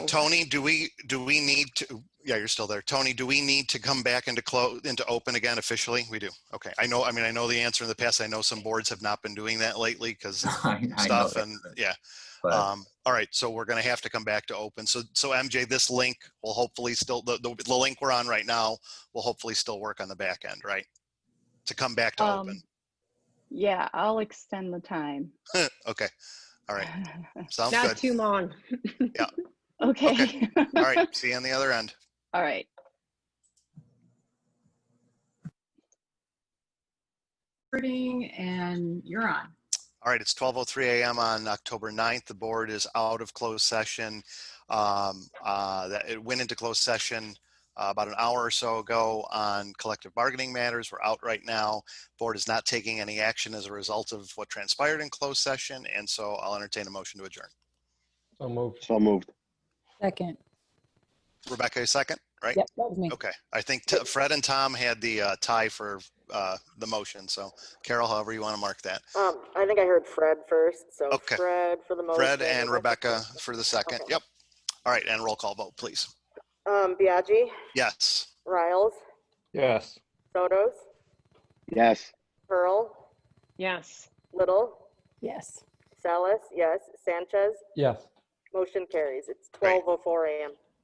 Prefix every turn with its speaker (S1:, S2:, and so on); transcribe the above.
S1: Tony, do we, do we need to, yeah, you're still there. Tony, do we need to come back into close, into open again officially? We do. Okay. I know, I mean, I know the answer in the past. I know some boards have not been doing that lately because
S2: I- I know
S1: stuff
S2: that,
S1: and, yeah.
S2: but-
S1: Um, all right, so we're gonna have to come back to open. So, so MJ, this link will hopefully still, the, the, the link we're on right now will hopefully still work on the back end, right? To come back to
S3: Um,
S1: open.
S3: Yeah, I'll extend the time.
S1: Okay, all right, sounds
S4: Not
S1: good.
S4: too long.
S3: Okay.
S1: All right, see you on the other end.
S3: All right.
S5: recording and you're on.
S1: All right, it's 12:03 a.m. on October 9th. The board is out of closed session. Um, uh, that- It went into closed session uh, about an hour or so ago on collective bargaining matters. We're out right now. Board is not taking any action as a result of what transpired in closed session, and so I'll entertain a motion to adjourn.
S6: So moved.
S7: So moved.
S8: Second.
S1: Rebecca, a second, right?
S8: Yep, that was me.
S1: Okay, I think T- Fred and Tom had the uh, tie for uh, the motion, so Carol, however you want to mark that.
S9: Um, I think I heard Fred first, so
S1: Okay.
S9: Fred for the motion.
S1: Fred and Rebecca for the second.
S9: Okay.
S1: Yep. All right, and roll call vote, please.
S9: Um, Biagi,
S1: Yes.
S9: Riles,
S6: Yes.
S9: Sotos,
S7: Yes.
S9: Pearl,
S4: Yes.
S9: Little,
S8: Yes.
S9: Salas, yes, Sanchez,
S6: Yes.
S9: motion carries. It's
S1: Great.
S9: 12:04 a.m.